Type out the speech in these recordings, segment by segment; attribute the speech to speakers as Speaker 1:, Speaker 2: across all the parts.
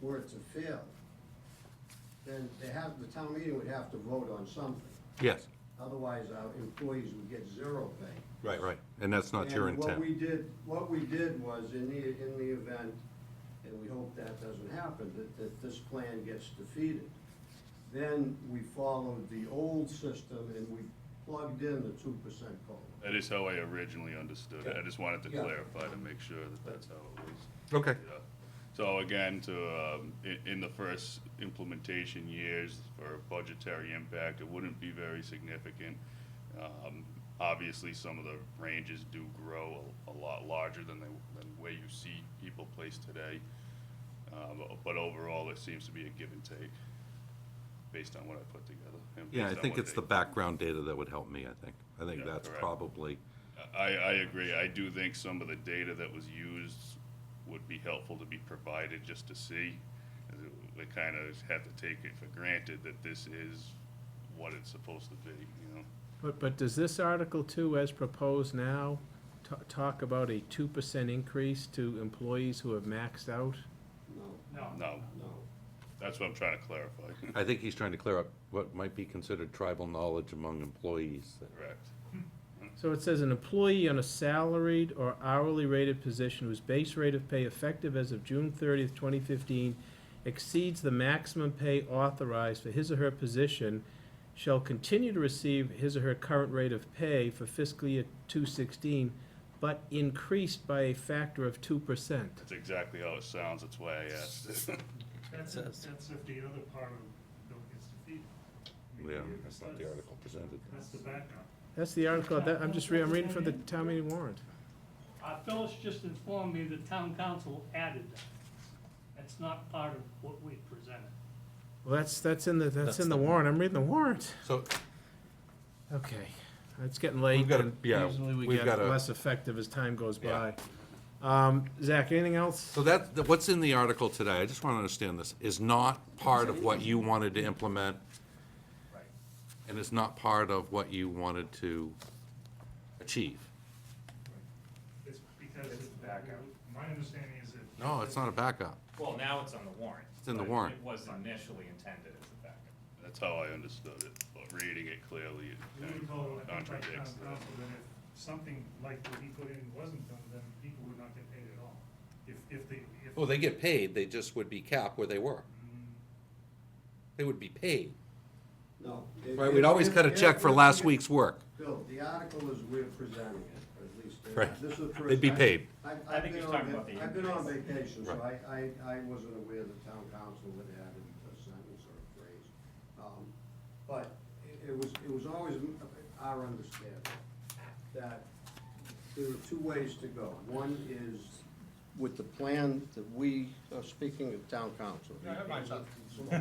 Speaker 1: were it to fail, then they have, the town meeting would have to vote on something.
Speaker 2: Yes,
Speaker 1: Otherwise, our employees would get zero pay.
Speaker 2: right, right, and that's not your
Speaker 1: And What
Speaker 2: intent.
Speaker 1: we did, what we did was, in the, in the event, and we hope that doesn't happen, that, that this plan gets defeated, then we followed the old system and we plugged in the two percent COLA.
Speaker 3: That is how I originally understood it. I just wanted to
Speaker 1: Yeah.
Speaker 3: clarify to make sure that that's how it was.
Speaker 2: Okay,
Speaker 3: Yeah. So again, to, um, in, in the first implementation years for budgetary impact, it wouldn't be very significant. Um, Obviously, some of the ranges do grow a a lot larger than they, than where you see people placed today. Uh, bu- But overall, there seems to be a give and take based on what I put together. and
Speaker 2: yeah, I
Speaker 3: based on
Speaker 2: think
Speaker 3: what
Speaker 2: it's
Speaker 3: they-
Speaker 2: the background data that would help me, I think. I think
Speaker 3: Yeah,
Speaker 2: that's
Speaker 3: correct.
Speaker 2: probably,
Speaker 3: I, I agree. I do think some of the data that was used would be helpful to be provided just to see. They kind of have to take it for granted that this is what it's supposed to be, you know?
Speaker 4: But, but does this Article Two, as proposed now, ta- talk about a two percent increase to employees who have maxed out?
Speaker 1: No,
Speaker 5: No.
Speaker 3: No,
Speaker 1: no.
Speaker 3: that's what I'm trying to clarify.
Speaker 2: I think he's trying to clear up what might be considered tribal knowledge among employees. that-
Speaker 3: Correct.
Speaker 4: So it says an employee on a salaried or hourly rated position whose base rate of pay effective as of June thirtieth, twenty fifteen, exceeds the maximum pay authorized for his or her position shall continue to receive his or her current rate of pay for fiscal year two sixteen, but increased by a factor of two percent.
Speaker 3: That's exactly how it sounds. That's why I asked.
Speaker 5: That's, that's if the other part of the bill gets defeated. I mean,
Speaker 2: Yeah, that's not the article presented.
Speaker 5: That's the backup.
Speaker 4: That's the article, that, I'm just reading, I'm reading from the town meeting warrant.
Speaker 6: Uh, Phyllis just informed me the town council added that. That's not part of what we presented.
Speaker 4: Well, that's, that's in the, that's in the warrant, I'm reading the warrant.
Speaker 2: So,
Speaker 4: Okay, it's getting late,
Speaker 2: We've gotta-
Speaker 4: and
Speaker 2: yeah,
Speaker 4: usually we
Speaker 2: we've
Speaker 4: get
Speaker 2: gotta-
Speaker 4: less effective as time goes
Speaker 2: Yeah.
Speaker 4: by. Um, Zach, anything else?
Speaker 2: so that, that- what's in the article today, I just want to understand this, is not part of what you wanted to implement. And it's not part of what you wanted to achieve.
Speaker 5: It's because. It's backup. My understanding is that.
Speaker 2: No, it's not a backup.
Speaker 7: Well, now it's on the warrant.
Speaker 2: It's in the
Speaker 7: but
Speaker 2: warrant.
Speaker 7: It was initially intended as a backup.
Speaker 3: That's how I understood it, but reading it clearly, it
Speaker 5: We
Speaker 3: kind
Speaker 5: were
Speaker 3: of
Speaker 5: told, I think by town
Speaker 3: contradicts that.
Speaker 5: council, that if something like what he put in wasn't done, then people would not get paid at all. If, if they, if.
Speaker 2: Well, they get paid, they just would be capped where they were. They would be paid.
Speaker 1: No. If-
Speaker 2: Right, we'd always
Speaker 1: if-
Speaker 2: cut a
Speaker 1: if-
Speaker 2: check for
Speaker 1: if-
Speaker 2: last
Speaker 1: if-
Speaker 2: week's work.
Speaker 1: Bill, the article is we're presenting it, or at least. uh,
Speaker 2: Right.
Speaker 1: this is the first
Speaker 2: They'd be
Speaker 1: I-
Speaker 2: paid.
Speaker 1: I- I've
Speaker 7: I
Speaker 1: been
Speaker 7: think he's
Speaker 1: on
Speaker 7: talking
Speaker 1: va-
Speaker 7: about the
Speaker 1: I've been on
Speaker 7: increase.
Speaker 1: vacation, so I, I, I wasn't aware the town council had added a sentence or a phrase. Um, But it- it was, it was always m- our understanding that there are two ways to go. One is with the plan that we are speaking of town council.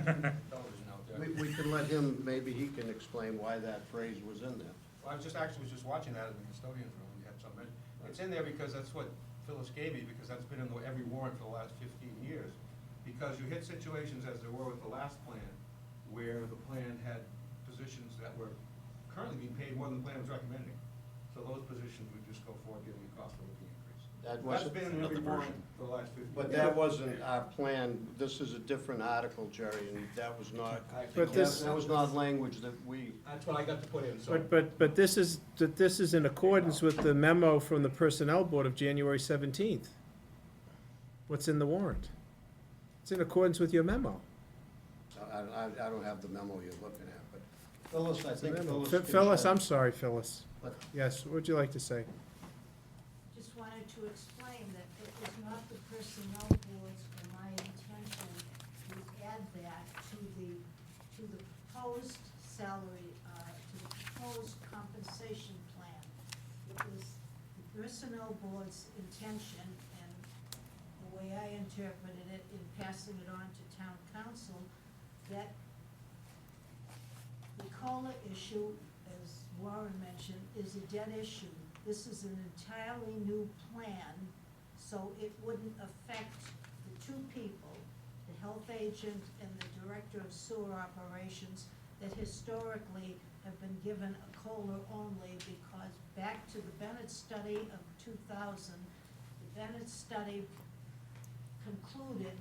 Speaker 1: We, we can let him, maybe he can explain why that phrase was in there.
Speaker 8: Well, I was just, actually was just watching that in the custodian's room, we had some, it- it's in there because that's what Phyllis gave me, because that's been in the- every warrant for the last fifteen years. Because you hit situations as there were with the last plan, where the plan had positions that were currently being paid more than the plan was recommending. So those positions would just go forward, giving a cost of living increase.
Speaker 1: That
Speaker 8: That's
Speaker 1: wasn't,
Speaker 8: been in every warrant for the last fifteen years.
Speaker 1: but that wasn't our plan, this is a different article, Jerry, and that was not,
Speaker 4: But
Speaker 1: that
Speaker 4: this-
Speaker 1: that was not language that we,
Speaker 8: That's what I got to put in, so.
Speaker 4: But, but, but this is, that this is in accordance with the memo from the Personnel Board of January seventeenth. What's in the warrant? It's in accordance with your memo.
Speaker 1: I, I, I don't have the memo you're looking at, but Phyllis, I
Speaker 4: It's a
Speaker 1: think
Speaker 4: memo.
Speaker 1: Phyllis.
Speaker 4: Ph-
Speaker 1: can
Speaker 4: Phyllis,
Speaker 1: share.
Speaker 4: I'm sorry, Phyllis.
Speaker 1: But-
Speaker 4: Yes, what'd you like to say?
Speaker 9: Just wanted to explain that it was not the personnel board's or my intention to add that to the, to the proposed salary, uh, to the proposed compensation plan. It was the personnel board's intention, and the way I interpreted it in passing it on to town council, that the COLA issue, as Warren mentioned, is a dead issue. This is an entirely new plan, so it wouldn't affect the two people, the health agent and the director of sewer operations, that historically have been given a COLA only because back to the Bennett study of two thousand, the Bennett study concluded